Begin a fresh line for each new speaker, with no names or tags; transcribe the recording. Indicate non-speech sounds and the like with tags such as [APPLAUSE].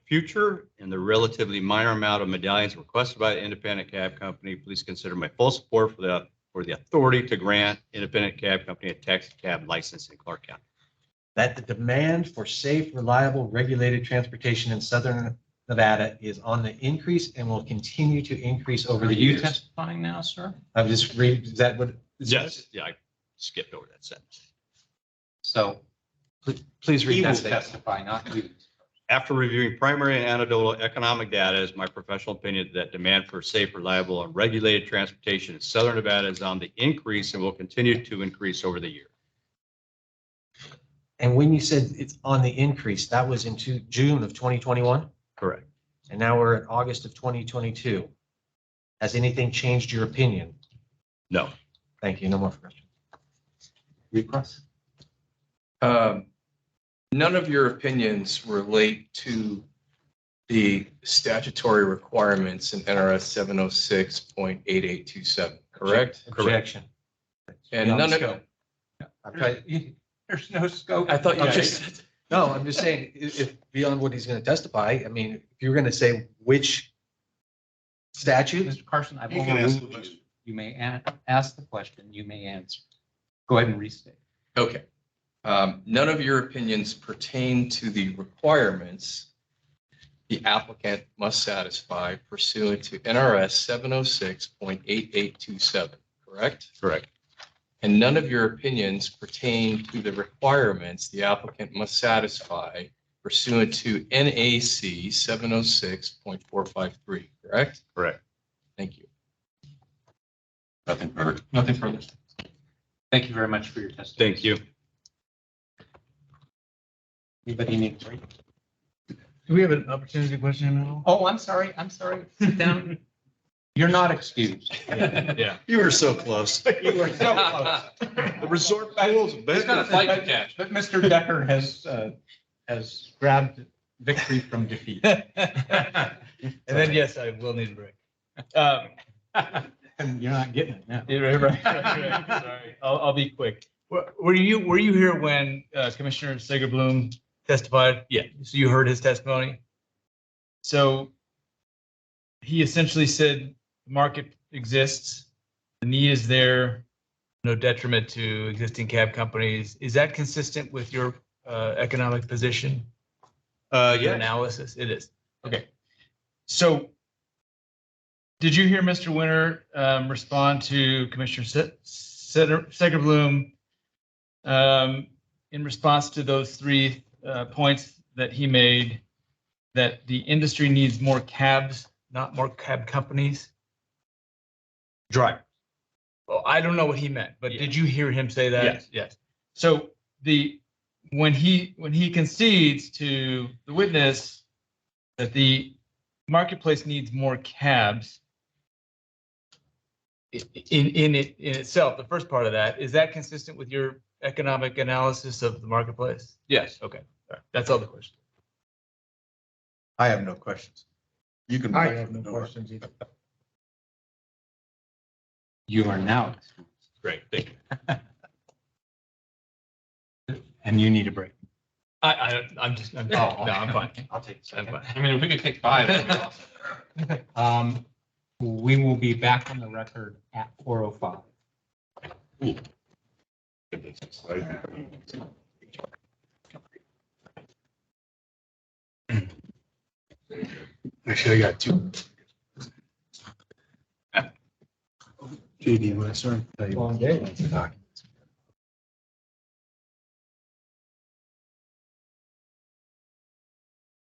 future and the relatively minor amount of medallions requested by the independent cab company, please consider my full support for the, for the authority to grant independent cab company a taxi cab license in Clark County.
that the demand for safe, reliable, regulated transportation in southern Nevada is on the increase and will continue to increase over
Are
the
you
years.
testifying now, sir?
I'm just read, is that what?
Yes, yeah, I skipped over that sentence.
So
Please
he
read
will
that statement.
testify, not you.
After reviewing primary and anecdotal economic data, it is my professional opinion that demand for safe, reliable, and regulated transportation in southern Nevada is on the increase and will continue to increase over the year.
And when you said it's on the increase, that was into June of twenty twenty-one,
Correct.
and now we're in August of twenty twenty-two. Has anything changed your opinion?
No.
Thank you. No more questions.
Repress.
Um, None of your opinions relate to the statutory requirements in NRS seven oh six point eight eight two seven, correct?
Objection.
And none of,
I'm trying-
There's no scope.
I thought you
Okay.
just said,
No, I'm just saying, i- if, beyond what he's gonna testify, I mean, if you're gonna say which statute,
Mr. Carson, I've
You can ask the
overruled you.
question.
You may a- ask the question, you may answer. Go ahead and restate.
okay. Um, None of your opinions pertain to the requirements the applicant must satisfy pursuant to NRS seven oh six point eight eight two seven, correct?
Correct.
And none of your opinions pertain to the requirements the applicant must satisfy pursuant to NAC seven oh six point four five three, correct?
Correct.
Thank you.
Nothing further.
Nothing further. Thank you very much for your testimony.
Thank
[LAUGHS]
you.
Anybody need a break?
Do we have an opportunity to question him at all?
Oh, I'm sorry, I'm sorry. Sit
[LAUGHS]
down. You're not excused.
Yeah.
You were so
[LAUGHS]
close.
You were so close.
The resort pools.
He's got a flight to catch. But Mr. Decker has, uh, has grabbed victory from [LAUGHS] defeat.
And then, yes, I will need a break. Um,
And you're not getting it now.
you're right, right, right, right. [LAUGHS] Sorry, I'll, I'll be quick. Were were you, were you here when uh, Commissioner Sigerbloom testified? Yeah. So you heard his testimony? So he essentially said, the market exists, the need is there, no detriment to existing cab companies. Is that consistent with your uh, economic position?
[LAUGHS] Uh,
your
yeah,
analysis? It is. Okay. So did you hear Mr. Winter um, respond to Commissioner Se- Se- Segerbloom um, in response to those three uh, points that he made, that the industry needs more cabs, not more cab companies?
drive.
Well, I don't know what he meant, but
Yeah.
did you hear him say that?
Yes. Yes.
So the, when he, when he concedes to the witness that the marketplace needs more cabs i- in, in it, in itself, the first part of that, is that consistent with your economic analysis of the marketplace?
Yes.
Okay, all right, that's all the question.
I have no questions. You can.
I have no questions either.
You are now, excused.
Great. Thank you.
[LAUGHS] and you need a break. Oh,
I, I, I'm just, I'm, no, I'm fine.
I'll take.
I'm fine.
I mean, if we could take five. that'd be awesome. [LAUGHS] Um, we will be back on the record at four oh five.
Actually, I got two. JD, my sorry.
Long day.